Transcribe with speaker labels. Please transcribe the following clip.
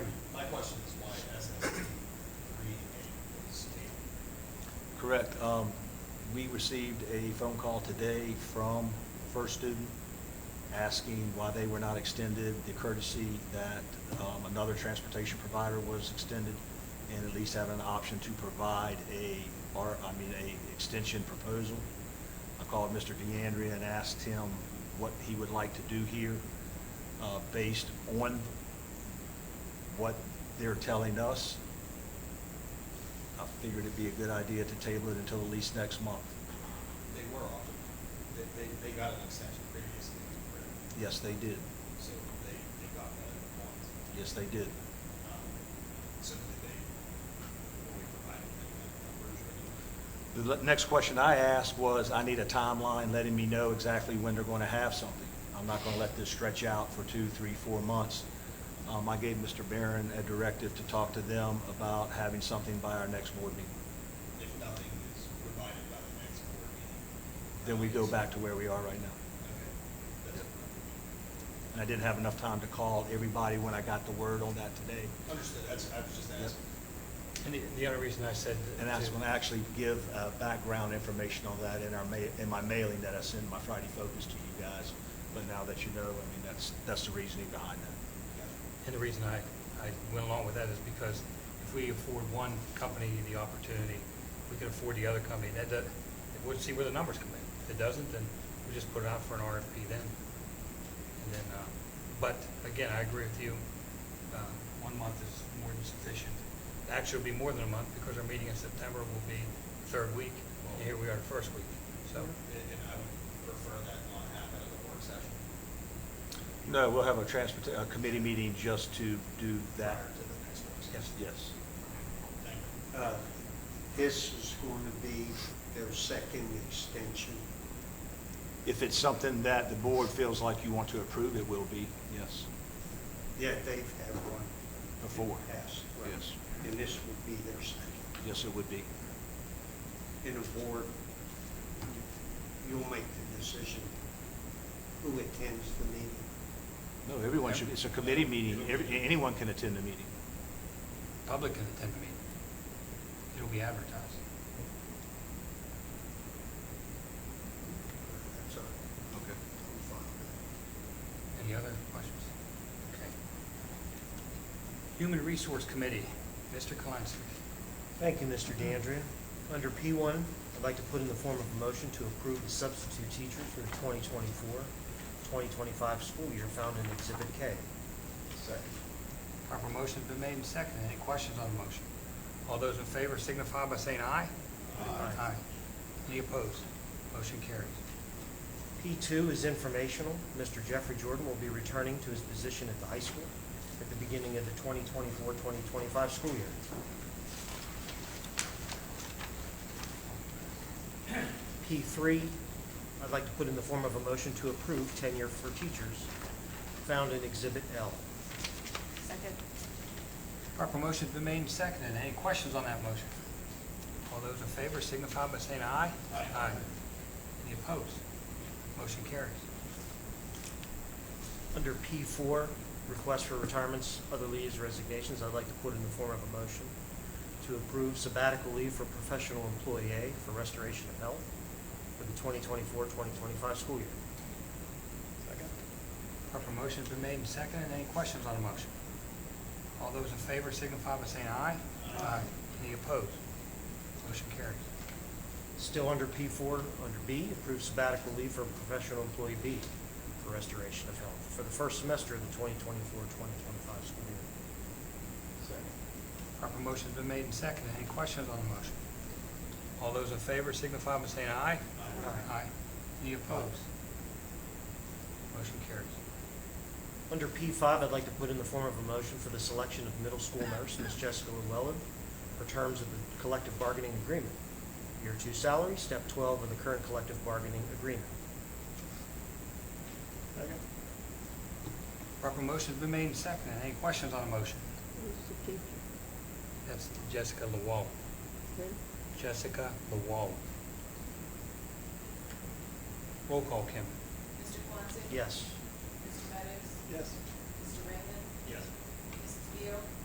Speaker 1: Correct. Um, We received a phone call today from First Student asking why they were not extended, the courtesy that um, another transportation provider was extended, and at least having an option to provide a, or, I mean, a extension proposal. I called Mr. DeAndrea and asked him what he would like to do here, uh, based on what they're telling us. I figured it'd be a good idea to table it until at least next month.
Speaker 2: They were offered, they, they, they got an extension previously, correct?
Speaker 1: Yes, they did.
Speaker 2: So they, they got that at once.
Speaker 1: Yes, they did.
Speaker 2: Um, So did they, were we provided any kind of numbers or anything?
Speaker 1: The le- next question I asked was, I need a timeline letting me know exactly when they're going to have something. I'm not going to let this stretch out for two, three, four months. Um, I gave Mr. Barron a directive to talk to them about having something by our next board meeting.
Speaker 2: If nothing is provided by the next board meeting?
Speaker 1: Then we go
Speaker 2: obviously-
Speaker 1: back to where we are right now.
Speaker 2: Okay, that's,
Speaker 1: And I didn't have enough time to call everybody when I got the word on that today.
Speaker 2: understood, that's, I was just
Speaker 1: Yep.
Speaker 2: asking.
Speaker 3: And the, the only reason I said.
Speaker 1: And that's going to actually give uh, background information on that in our, ma- in my mailing that I send my Friday focus to you guys. But now that you know, I mean, that's, that's the reasoning behind that.
Speaker 3: And the reason I, I went along with that is because if we afford one company the opportunity, we can afford the other company. That, does- we'll see where the numbers come in. If it doesn't, then we just put it out for an RFP then. And then, uh, but again, I agree with you. Uh, One month is more than sufficient. Actually, it'll be more than a month because our meeting in September will be the third week. And here we are the first week, so.
Speaker 2: And, and I would prefer that not happen at the work session.
Speaker 1: No, we'll have a transport, a committee meeting just to do that.
Speaker 2: Prior to the next work
Speaker 3: Yes.
Speaker 2: session.
Speaker 1: Yes.
Speaker 2: Thank you.
Speaker 4: Uh, This is going to be their second extension.
Speaker 1: If it's something that the board feels like you want to approve, it will be, yes,
Speaker 4: Yeah, they've had one
Speaker 1: before.
Speaker 4: passed.
Speaker 1: Yes.
Speaker 4: And this would be their second.
Speaker 1: Yes, it would be.
Speaker 4: In a board, you- you'll make the decision who attends the meeting.
Speaker 1: No, everyone should, it's a committee meeting. Every- Anyone can attend the meeting.
Speaker 3: Public can attend the meeting. It'll be advertised.
Speaker 4: That's all.
Speaker 1: Okay.
Speaker 4: I'm fine with
Speaker 3: Any other questions? Okay. Human Resource Committee, Mr. Kalinsky.
Speaker 5: Thank you, Mr. DeAndrea. Under P1, I'd like to put in the form of a motion to approve the substitute teacher for the 2024-2025 school year found in Exhibit K.
Speaker 3: Proper motion's been made and seconded. Any questions on the motion? All those in favor signify by saying aye.
Speaker 5: Aye.
Speaker 3: Any opposed? Motion carries.
Speaker 5: P2 is informational. Mr. Jeffrey Jordan will be returning to his position at the high school at the beginning of the 2024-2025 school year. P3, I'd like to put in the form of a motion to approve tenure for teachers found in Exhibit L.
Speaker 6: Second.
Speaker 3: Proper motion's been made and seconded. Any questions on that motion? All those in favor signify by saying aye.
Speaker 2: Aye.
Speaker 3: Any opposed? Motion carries.
Speaker 5: Under P4, request for retirements, other leaves, resignations, I'd like to put in the form of a motion to approve sabbatical leave for professional employee A for restoration of health for the 2024-2025 school year.
Speaker 3: Proper motion's been made and seconded. Any questions on the motion? All those in favor signify by saying aye. Aye. Any opposed? Motion carries.
Speaker 5: Still under P4, under B, approve sabbatical leave for professional employee B for restoration of health for the first semester of the 2024-2025 school year.
Speaker 3: Proper motion's been made and seconded. Any questions on the motion? All those in favor signify by saying aye.
Speaker 5: Aye.
Speaker 3: Any opposed? Motion carries.
Speaker 5: Under P5, I'd like to put in the form of a motion for the selection of middle school nurse, Ms. Jessica Llewellyn, for terms of the collective bargaining agreement. Year two salary, step 12 of the current collective bargaining agreement.
Speaker 3: Proper motion's been made and seconded. Any questions on the motion?
Speaker 6: Who's the teacher?
Speaker 3: That's Jessica LaWall.
Speaker 6: Who?
Speaker 3: Jessica LaWall. Roll call, Kim.
Speaker 7: Mr. Guanxi?
Speaker 5: Yes.
Speaker 7: Mr. Meadows?
Speaker 4: Yes.
Speaker 7: Mr. Raymond?
Speaker 2: Yes.
Speaker 7: Mrs. Beal?